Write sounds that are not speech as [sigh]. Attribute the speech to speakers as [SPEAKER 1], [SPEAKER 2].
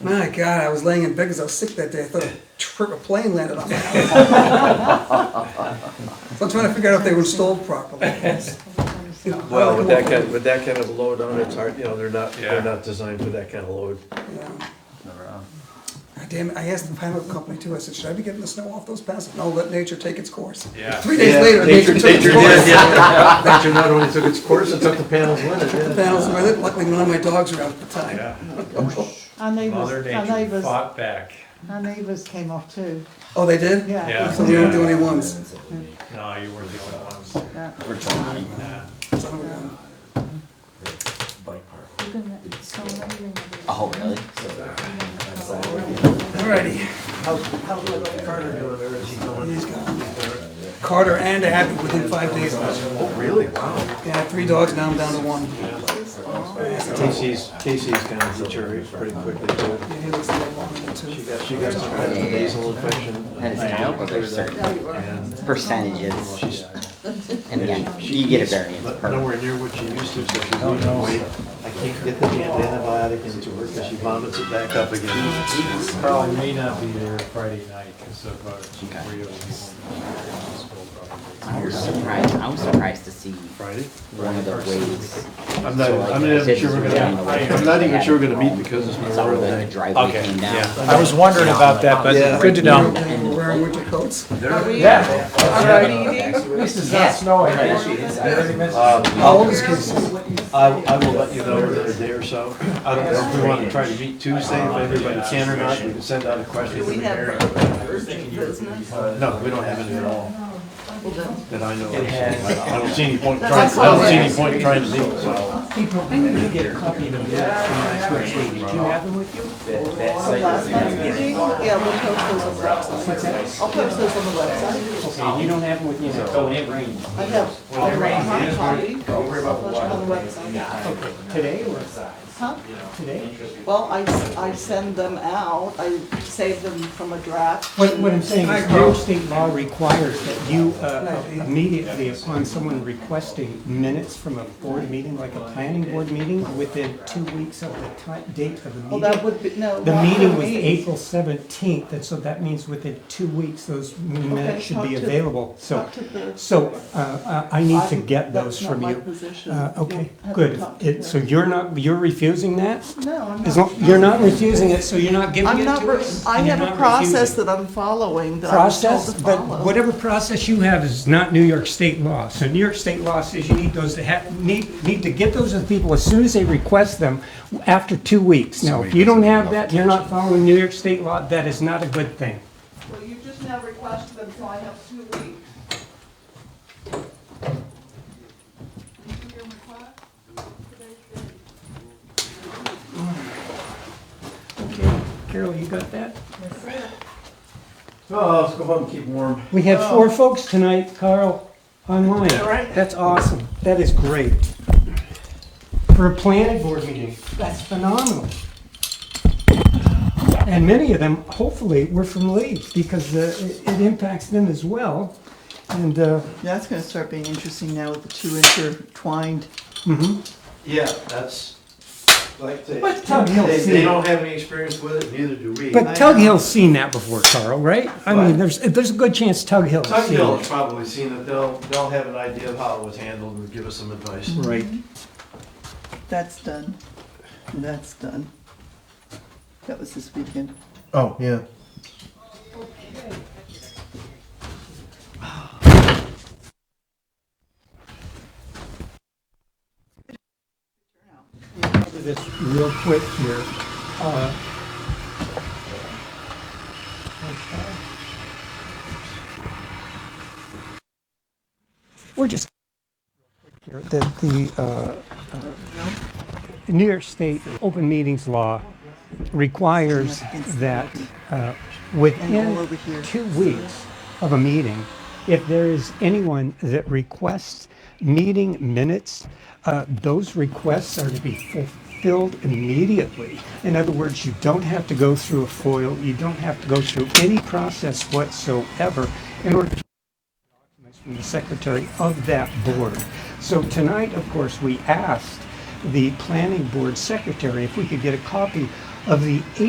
[SPEAKER 1] My God, I was laying in bed because I was sick that day. I thought a, trip, a plane landed
[SPEAKER 2] [laughs]
[SPEAKER 1] on my house. so I'm trying to figure out if they were installed properly.
[SPEAKER 2] [laughs] Well, with that kind, with that kind of load on, it's hard, you know, they're not,
[SPEAKER 3] Yeah.
[SPEAKER 2] they're not designed for that kind of load.
[SPEAKER 1] Yeah.
[SPEAKER 4] Never, uh,
[SPEAKER 1] God damn it, I asked the panel company too, I said, should I be getting the snow off those panels? No, let nature take its course.
[SPEAKER 3] Yeah.
[SPEAKER 1] Three days later, nature took its
[SPEAKER 2] Nature
[SPEAKER 1] course.
[SPEAKER 2] did, yeah. [laughs] Nature not only took its course, it took the panels with it,
[SPEAKER 1] The
[SPEAKER 2] yeah.
[SPEAKER 1] panels were lit, luckily none of my dogs were out at the time.
[SPEAKER 3] Yeah,
[SPEAKER 5] Our
[SPEAKER 3] Mother
[SPEAKER 5] neighbours, our
[SPEAKER 3] Nature
[SPEAKER 5] neighbours,
[SPEAKER 3] fought back.
[SPEAKER 5] our neighbours came off too.
[SPEAKER 1] Oh, they did?
[SPEAKER 5] Yeah.
[SPEAKER 3] Yeah.
[SPEAKER 1] So we don't do any ones.
[SPEAKER 3] No, you weren't the only ones.
[SPEAKER 5] yeah.
[SPEAKER 4] We're trying.
[SPEAKER 1] Son of a gun.
[SPEAKER 4] Oh, really?
[SPEAKER 1] Alrighty,
[SPEAKER 2] How's, how's little Carter doing, or is he going?
[SPEAKER 1] Carter and Abby within five days. of each other.
[SPEAKER 2] Oh, really? Wow.
[SPEAKER 1] Yeah, I have three dogs, now I'm down to one.
[SPEAKER 2] Casey's, Casey's gonna deteriorate pretty quickly, too.
[SPEAKER 1] Yeah, he looks a little longer than
[SPEAKER 2] She
[SPEAKER 1] two.
[SPEAKER 2] got, she got some kind of nasal infection.
[SPEAKER 4] That is now, but there's certain
[SPEAKER 2] And
[SPEAKER 4] percentages,
[SPEAKER 2] she's
[SPEAKER 4] and again, you get a variance
[SPEAKER 2] But
[SPEAKER 4] per.
[SPEAKER 2] nowhere near what she used to, so she's
[SPEAKER 4] Oh,
[SPEAKER 2] losing weight. I can't get the damn antibiotic into her because she vomits it back up again.
[SPEAKER 3] Carl may not be there Friday night because of uh, Rio's hospital probably.
[SPEAKER 4] I was surprised, I was surprised to see
[SPEAKER 2] Friday?
[SPEAKER 4] one of the waves.
[SPEAKER 2] I'm not, I'm not even sure we're gonna, I'm not even sure we're gonna meet because it's
[SPEAKER 4] It's all
[SPEAKER 2] Memorial
[SPEAKER 4] the
[SPEAKER 2] Day.
[SPEAKER 4] driveway
[SPEAKER 3] Okay,
[SPEAKER 4] came down.
[SPEAKER 6] I was wondering about that, but
[SPEAKER 2] Yeah.
[SPEAKER 6] good to
[SPEAKER 1] You're
[SPEAKER 6] know.
[SPEAKER 1] okay, we're wearing winter coats?
[SPEAKER 3] Yeah.
[SPEAKER 6] This is not snowing.
[SPEAKER 2] Um,
[SPEAKER 1] How old is Casey?
[SPEAKER 2] I, I will let you know within a day or so. I don't know if we wanna try to meet Tuesday, if everybody can or not, we can send out a question.
[SPEAKER 7] We have urgent business.
[SPEAKER 2] No, we don't have any at all
[SPEAKER 7] Well, then,
[SPEAKER 2] that I know of. I don't see any point in trying, I don't see any point in trying to meet, so.
[SPEAKER 7] Last night's meeting, yeah, we'll post those on the website. I'll post those on the website.
[SPEAKER 4] You don't have them with you, so it rains.
[SPEAKER 7] I have, I'll write my copy. Don't worry about On the website.
[SPEAKER 6] Today or
[SPEAKER 7] Huh?
[SPEAKER 6] today?
[SPEAKER 7] Well, I, s- I send them out, I save them from a draft.
[SPEAKER 6] What, what I'm saying
[SPEAKER 1] Hi,
[SPEAKER 6] is,
[SPEAKER 1] Carl.
[SPEAKER 6] no state law requires that you uh, immediately upon someone requesting minutes from a board meeting, like a planning board meeting, within two weeks of the ti- date of the
[SPEAKER 7] Well, that
[SPEAKER 6] meeting.
[SPEAKER 7] would be, no.
[SPEAKER 6] The
[SPEAKER 7] not
[SPEAKER 6] meeting
[SPEAKER 7] for
[SPEAKER 6] was
[SPEAKER 7] me.
[SPEAKER 6] April seventeenth, and so that means within two weeks, those minutes should
[SPEAKER 7] talk
[SPEAKER 6] be
[SPEAKER 7] to-
[SPEAKER 6] available. So,
[SPEAKER 7] Talk to the-
[SPEAKER 6] so uh, uh, I need to
[SPEAKER 7] I'm-
[SPEAKER 6] get those
[SPEAKER 7] that's not
[SPEAKER 6] from
[SPEAKER 7] my
[SPEAKER 6] you.
[SPEAKER 7] position.
[SPEAKER 6] Uh, Okay,
[SPEAKER 7] You'll have to
[SPEAKER 6] good.
[SPEAKER 7] talk to
[SPEAKER 6] It- So
[SPEAKER 7] her.
[SPEAKER 6] you're not, you're refusing that?
[SPEAKER 7] No, I'm
[SPEAKER 6] As
[SPEAKER 7] not.
[SPEAKER 6] long, you're not refusing it, so you're not giving
[SPEAKER 7] I'm
[SPEAKER 6] it to
[SPEAKER 7] not, re-
[SPEAKER 6] us?
[SPEAKER 7] I
[SPEAKER 6] You're
[SPEAKER 7] have a
[SPEAKER 6] not
[SPEAKER 7] process
[SPEAKER 6] refusing.
[SPEAKER 7] that I'm following, that I'm told to
[SPEAKER 6] Process, but
[SPEAKER 7] follow.
[SPEAKER 6] whatever process you have is not New York state law. So New York state law says you need those to have, need, need to get those to the people as soon as they request them after two weeks. Now, if you don't have that, you're not following New York state law, that is not a good thing.
[SPEAKER 7] Well, you just now requested them, so I have two weeks. Did you hear my request?
[SPEAKER 6] Carol, you got that?
[SPEAKER 2] Oh, let's go home and keep warm.
[SPEAKER 6] We had four folks tonight, Carl, online. That's awesome. That is great. For a planning board meeting, that's phenomenal. And many of them, hopefully, were from Lee because uh, it it impacts them as well. And, uh,
[SPEAKER 7] That's gonna start being interesting now with the two intertwined.
[SPEAKER 2] Yeah, that's, like, they,
[SPEAKER 6] But Tug
[SPEAKER 2] they,
[SPEAKER 6] Hill's
[SPEAKER 2] they
[SPEAKER 6] seen,
[SPEAKER 2] don't have any experience with it, neither do we.
[SPEAKER 6] but Tug Hill's seen that before, Carl, right? I mean, there's, there's a good chance Tug Hill's
[SPEAKER 2] Tug
[SPEAKER 6] seen
[SPEAKER 2] Hill's
[SPEAKER 6] it.
[SPEAKER 2] probably seen it, they'll, they'll have an idea of how it was handled and give us some advice.
[SPEAKER 6] Right.
[SPEAKER 7] That's done. That's done. That was this weekend.
[SPEAKER 2] Oh, yeah.
[SPEAKER 6] do this real quick here. Uh, We're just here, the, the, uh, uh, New York State Open Meetings Law requires that, uh,
[SPEAKER 7] And all over
[SPEAKER 6] within
[SPEAKER 7] here.
[SPEAKER 6] two weeks of a meeting, if there is anyone that requests meeting minutes, uh, those requests are to be fulfilled immediately. In other words, you don't have to go through a FOIL, you don't have to go through any process whatsoever in order to documents from the secretary of that board. So tonight, of course, we asked the planning board secretary if we could get a copy of the